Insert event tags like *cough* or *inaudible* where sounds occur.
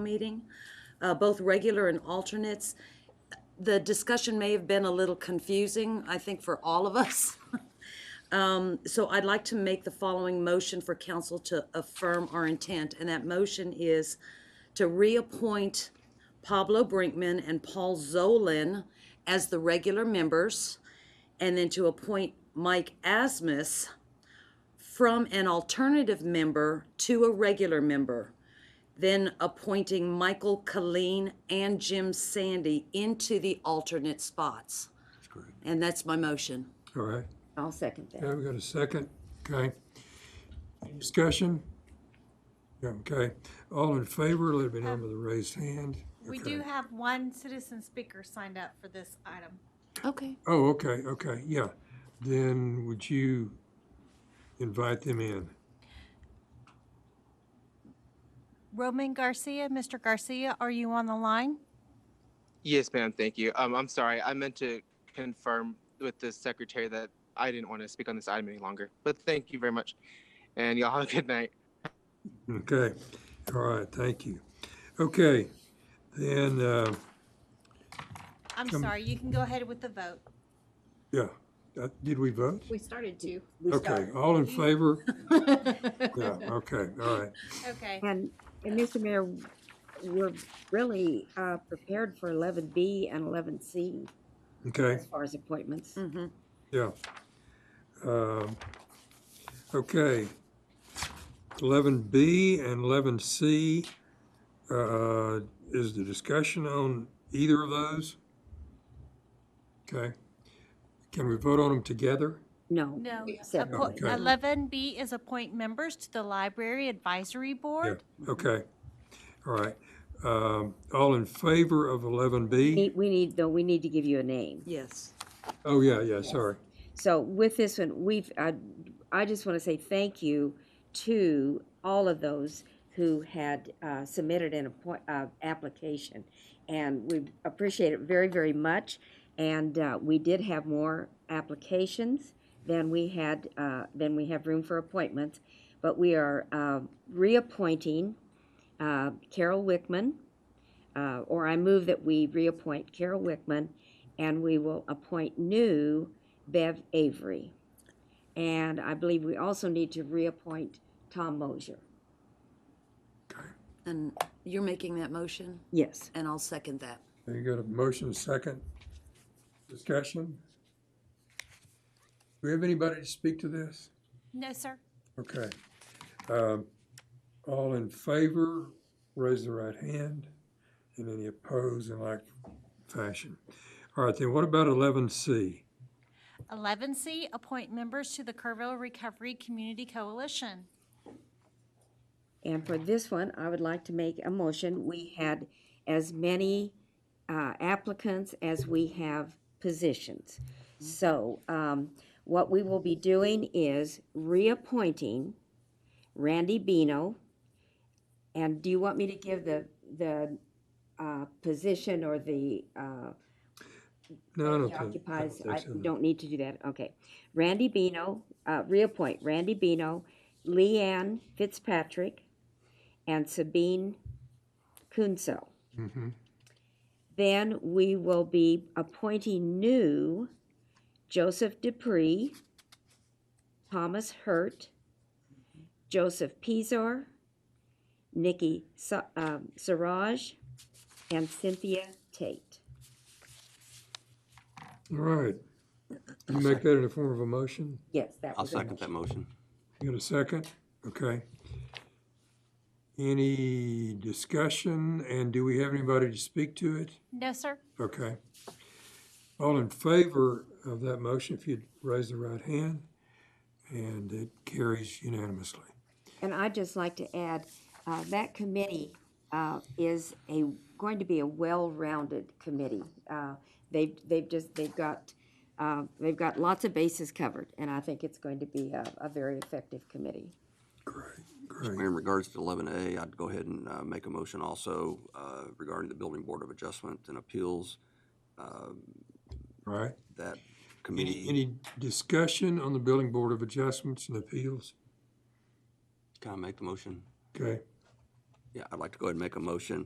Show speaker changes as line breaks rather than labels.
meeting, uh, both regular and alternates. The discussion may have been a little confusing, I think, for all of us. *laughs* Um, So I'd like to make the following motion for council to affirm our intent, and that motion is to reappoint Pablo Brinkman and Paul Zolan as the regular members, and then to appoint Mike Asmus from an alternative member to a regular member, then appointing Michael Colleen and Jim Sandy into the alternate spots.
That's great.
And that's my motion.
All right.
I'll second that.
Yeah, we got a second. Okay. Any Discussion? Yeah, okay. All in favor, let it be known by the raised hand.
We
Okay.
do have one citizen speaker signed up for this item.
Okay.
Oh, okay, okay, yeah. Then would you invite them in?
Roman Garcia, Mr. Garcia, are you on the line?
Yes, ma'am. Thank you. Um, I'm sorry. I meant to confirm with the secretary that I didn't want to speak on this item any longer. But thank you very much, and y'all have a good night.
Okay, all right, thank you. Okay, then, uh,
I'm sorry, you can go ahead with the vote.
yeah, Uh, did we vote?
We started to.
Okay, all
*laughs*
in favor? Yeah, okay, all right.
Okay.
And, and Mr. Mayor, we're really uh, prepared for eleven B and eleven C
Okay,
as far as
Mm.
appointments.
yeah. Um, Okay. Eleven B and eleven C, uh, is the discussion on either of those? Okay. Can we vote on them together?
No.
No,
Separate.
appoint-
Okay.
11B is appoint members to the Library Advisory
Yeah,
Board.
okay. All right. Um, all in favor of eleven B?
Need- We need, though, we need to give you a name.
Yes.
Oh, yeah, yeah, sorry.
So with this one, we've, I, I just want to say thank you to all of those who had uh, submitted an appoint, uh, application. And we appreciate it very, very much. And uh, we did have more applications than we had, uh, than we have room for appointments. But we are uh, reappointing uh, Carol Wickman, uh, or I move that we reappoint Carol Wickman, and we will appoint new Bev Avery. And I believe we also need to reappoint Tom Mosier.
And you're making that motion,
Yes.
and I'll second that.
You got a motion, second discussion? Do we have anybody to speak to this?
No, sir.
Okay. Um, All in favor, raise the right hand, and any opposed in like fashion. All right, then what about eleven C?
11C, appoint members to the Kerrville Recovery Community Coalition.
And for this one, I would like to make a motion. We had as many uh, applicants as we have positions. So um, what we will be doing is reappointing Randy Bino. And do you want me to give the, the uh, position or the uh,
No,
Oh,
I don't think. I don't
occupies,
think
I
so.
don't need to do that, okay. Randy Bino, uh, reappoint Randy Bino, Leanne Fitzpatrick, and Sabine Kunzel.
Mm-hmm.
Mhm.
Then we will be appointing new Joseph Dupree, Thomas Hurt, Joseph Pizar, Nikki Sa- um, Saraj, and Cynthia Tate.
All right. You make that in the form of a motion?
Yes, that
I'll
was a
second
motion.
that motion.
You got a second? Okay. Any discussion, and do we have anybody to speak to it?
No, sir.
Okay. All in favor of that motion, if you'd raise the right hand, and it carries unanimously.
And I'd just like to add, uh, that committee uh, is a, going to be a well-rounded committee. Uh, They've, they've just, they've got, uh, they've got lots of bases covered, and I think it's going to be a, a very effective committee.
Great,
Mayor,
great.
in regards to eleven A, I'd go ahead and uh, make a motion also uh, regarding the Building Board of Adjustment and Appeals.
All right.
That
Any,
committee,
any discussion on the Building Board of Adjustments and Appeals?
can I make the motion?
Okay.
Yeah, I'd like to go ahead and make a motion